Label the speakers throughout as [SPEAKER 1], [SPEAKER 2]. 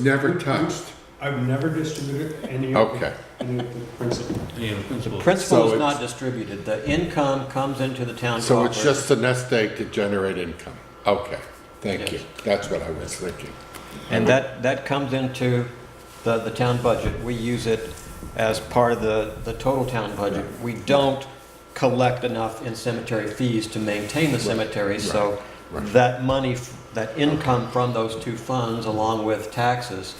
[SPEAKER 1] Never touched.
[SPEAKER 2] I've never distributed any of the,
[SPEAKER 1] Okay.
[SPEAKER 2] any of the principal.
[SPEAKER 3] Any of the
[SPEAKER 4] The
[SPEAKER 3] principals?
[SPEAKER 4] principal
[SPEAKER 1] So
[SPEAKER 4] is not distributed. The income comes into the town
[SPEAKER 1] So it's
[SPEAKER 4] coffers.
[SPEAKER 1] just a nest egg to generate income. Okay, thank you.
[SPEAKER 4] Yes.
[SPEAKER 1] That's what I was thinking.
[SPEAKER 4] And that, that comes into the, the town budget. We use it as part of the, the total town budget. We don't collect enough in cemetery fees to maintain the cemetery, so
[SPEAKER 1] right.
[SPEAKER 4] that money, f- that income from those two funds, along with taxes,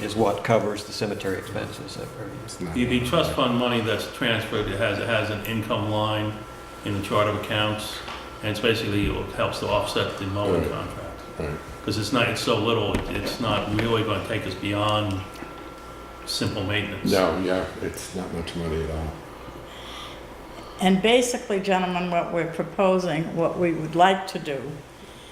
[SPEAKER 4] is what covers the cemetery expenses.
[SPEAKER 1] It's not-
[SPEAKER 3] The, the trust fund money that's transferred, it has, it has an income line in the chart of accounts, and it's basically, it helps to offset the mowing
[SPEAKER 1] Right.
[SPEAKER 3] contract.
[SPEAKER 1] Right.
[SPEAKER 3] Because it's not, it's so little, it- it's not really gonna take us beyond simple maintenance.
[SPEAKER 1] No, yeah, it's not much money at all.
[SPEAKER 5] And basically, gentlemen, what we're proposing, what we would like to do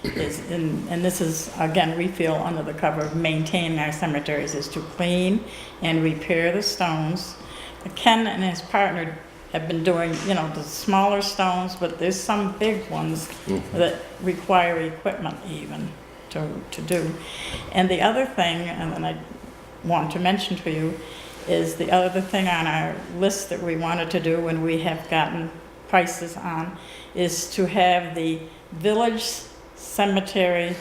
[SPEAKER 5] is, and and this is, again, we feel under the cover of maintaining our cemeteries, is to clean and repair the stones. Ken and his partner have been doing, you know, the smaller stones, but there's some big ones
[SPEAKER 1] Mm-hmm.
[SPEAKER 5] that require equipment even to, to do. And the other thing, and then I want to mention to you, is the other thing on our list that we wanted to do and we have gotten prices on, is to have the village cemetery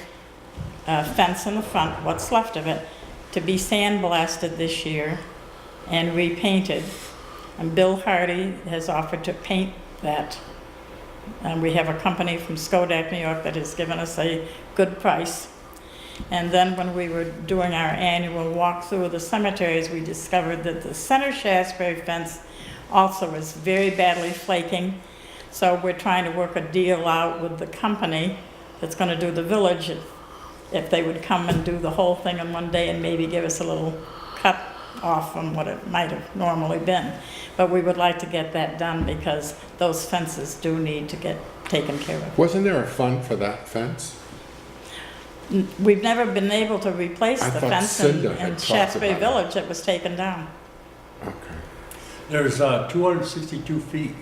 [SPEAKER 5] uh, fence in the front, what's left of it, to be sandblasted this year and repainted. And Bill Hardy has offered to paint that. And Um, we have a company from Skodak, New York, that has given us a good price. And then when we were doing our annual walkthrough of the cemeteries, we discovered that the center Shasberry fence also is very badly flaking. So we're trying to work a deal out with the company that's gonna do the village, if- if they would come and do the whole thing in one day and maybe give us a little cut off from what it might have normally been. But we would like to get that done because those fences do need to get taken care of.
[SPEAKER 1] Wasn't there a fund for that fence?
[SPEAKER 5] N- We've never been able to replace
[SPEAKER 1] I
[SPEAKER 5] the
[SPEAKER 1] thought
[SPEAKER 5] fence in
[SPEAKER 1] Cinda had
[SPEAKER 5] in
[SPEAKER 1] talked
[SPEAKER 5] Shaftesbury
[SPEAKER 1] about
[SPEAKER 5] Village that was taken down.
[SPEAKER 1] Okay.
[SPEAKER 6] There's uh, 262 feet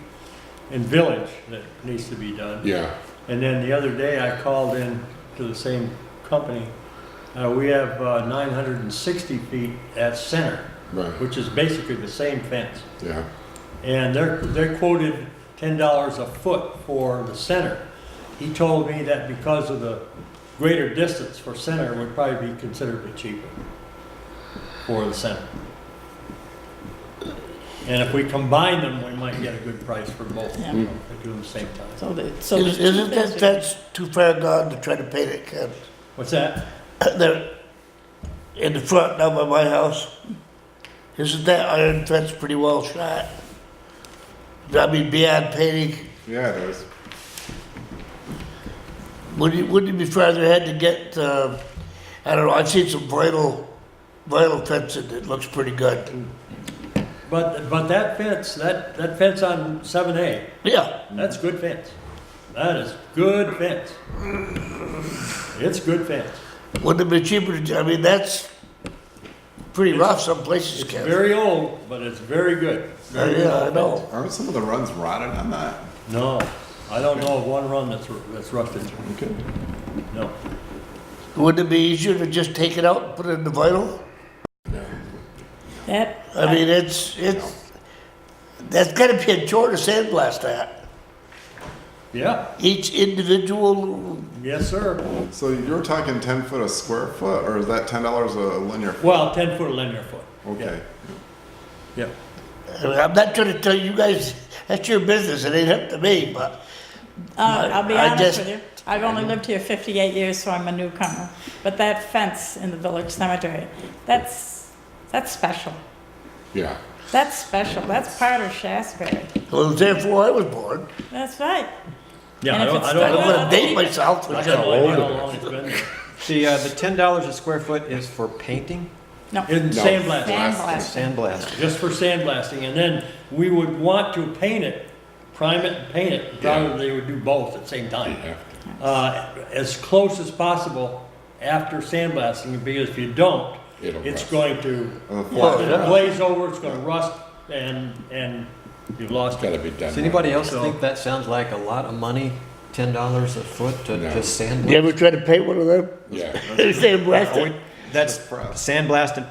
[SPEAKER 6] in village that needs to be done.
[SPEAKER 1] Yeah,
[SPEAKER 6] And then the other day, I called in to the same company. Uh, We have uh, 960 feet at center,
[SPEAKER 1] right,
[SPEAKER 6] which is basically the same fence.
[SPEAKER 1] yeah.
[SPEAKER 6] And they're, they're quoted $10 a foot for the center. He told me that because of the greater distance for center would probably be considerably cheaper for the center. And if we combine them, we might get a good price for both,
[SPEAKER 5] Yeah.
[SPEAKER 6] you know, if they do them same time.
[SPEAKER 5] So the, so there's
[SPEAKER 7] Is-
[SPEAKER 5] two
[SPEAKER 7] Isn't
[SPEAKER 5] fences.
[SPEAKER 7] that, that's too far gone to try to paint it, Ken?
[SPEAKER 6] What's that?
[SPEAKER 7] There, in the front down by my house, isn't that iron fence pretty well shot? I mean, beyond painting,
[SPEAKER 1] Yeah, it is.
[SPEAKER 7] wouldn't it, wouldn't it be farther ahead to get, uh, I don't know, I've seen some vinyl, vinyl fencing that looks pretty good.
[SPEAKER 6] But, but that fence, that, that fence on seven A,
[SPEAKER 7] Yeah,
[SPEAKER 6] that's good fence. That is good fence. It's good fence.
[SPEAKER 7] wouldn't it be cheaper to, I mean, that's pretty rough some places,
[SPEAKER 6] It's
[SPEAKER 7] Ken.
[SPEAKER 6] very old, but it's very good.
[SPEAKER 7] Uh,
[SPEAKER 6] Very
[SPEAKER 7] Yeah, I
[SPEAKER 6] old
[SPEAKER 7] know.
[SPEAKER 8] Aren't some of the runs rotted on that?
[SPEAKER 6] fence. No, I don't know of one run that's, ru- that's rusted,
[SPEAKER 8] Okay.
[SPEAKER 6] no.
[SPEAKER 7] Wouldn't it be easier to just take it out and put it in the vinyl?
[SPEAKER 5] That,
[SPEAKER 7] I mean, it's, it's, that's gotta be a chore to sandblast that.
[SPEAKER 6] Yeah,
[SPEAKER 7] Each individual,
[SPEAKER 6] yes, sir.
[SPEAKER 8] So you're talking ten foot a square foot, or is that ten dollars a linear? foot?
[SPEAKER 6] Well, ten foot linear foot.
[SPEAKER 8] Okay.
[SPEAKER 6] Yeah,
[SPEAKER 7] I mean, I'm not trying to tell you guys, that's your business, it ain't up to me, but
[SPEAKER 5] uh, I'll be
[SPEAKER 7] I
[SPEAKER 5] honest
[SPEAKER 7] just-
[SPEAKER 5] with you, I've only lived here fifty-eight years, so I'm a newcomer. But that fence in the village cemetery, that's, that's special.
[SPEAKER 1] Yeah,
[SPEAKER 5] That's special, that's part of Shaftesbury.
[SPEAKER 7] it was there before I was born.
[SPEAKER 5] That's right.
[SPEAKER 6] yeah.
[SPEAKER 5] And
[SPEAKER 6] I
[SPEAKER 5] if
[SPEAKER 6] don't,
[SPEAKER 5] it's
[SPEAKER 6] I
[SPEAKER 7] I
[SPEAKER 5] done
[SPEAKER 6] don't,
[SPEAKER 7] don't
[SPEAKER 6] I
[SPEAKER 7] wanna date myself.
[SPEAKER 6] don't
[SPEAKER 7] but-
[SPEAKER 6] know
[SPEAKER 1] old
[SPEAKER 6] how
[SPEAKER 1] it is.
[SPEAKER 6] long it's been there.
[SPEAKER 4] The, uh, the ten dollars a square foot is for painting,
[SPEAKER 5] No,
[SPEAKER 6] In
[SPEAKER 1] No.
[SPEAKER 6] sandblasting,
[SPEAKER 5] sandblasting.
[SPEAKER 4] sandblast.
[SPEAKER 6] just for sandblasting, and then we would want to paint it, prime it and paint it. Probably they would do both at the same time.
[SPEAKER 1] yeah.
[SPEAKER 6] uh, as close as possible after sandblasting, because if you don't,
[SPEAKER 1] It'll
[SPEAKER 6] it's
[SPEAKER 1] rust.
[SPEAKER 6] going to,
[SPEAKER 8] And the
[SPEAKER 7] Well,
[SPEAKER 8] flat-
[SPEAKER 6] it'll
[SPEAKER 7] yeah.
[SPEAKER 6] glaze over, it's gonna rust, and, and you've lost
[SPEAKER 1] Gotta
[SPEAKER 6] it.
[SPEAKER 1] be done.
[SPEAKER 4] Does anybody else
[SPEAKER 6] So-
[SPEAKER 4] think that sounds like a lot of money, ten dollars a foot to
[SPEAKER 1] No.
[SPEAKER 4] just sand?
[SPEAKER 7] You ever try to paint one of them?
[SPEAKER 1] Yeah.
[SPEAKER 7] Sandblast it?
[SPEAKER 4] that's
[SPEAKER 8] Suppressed.
[SPEAKER 4] sandblast and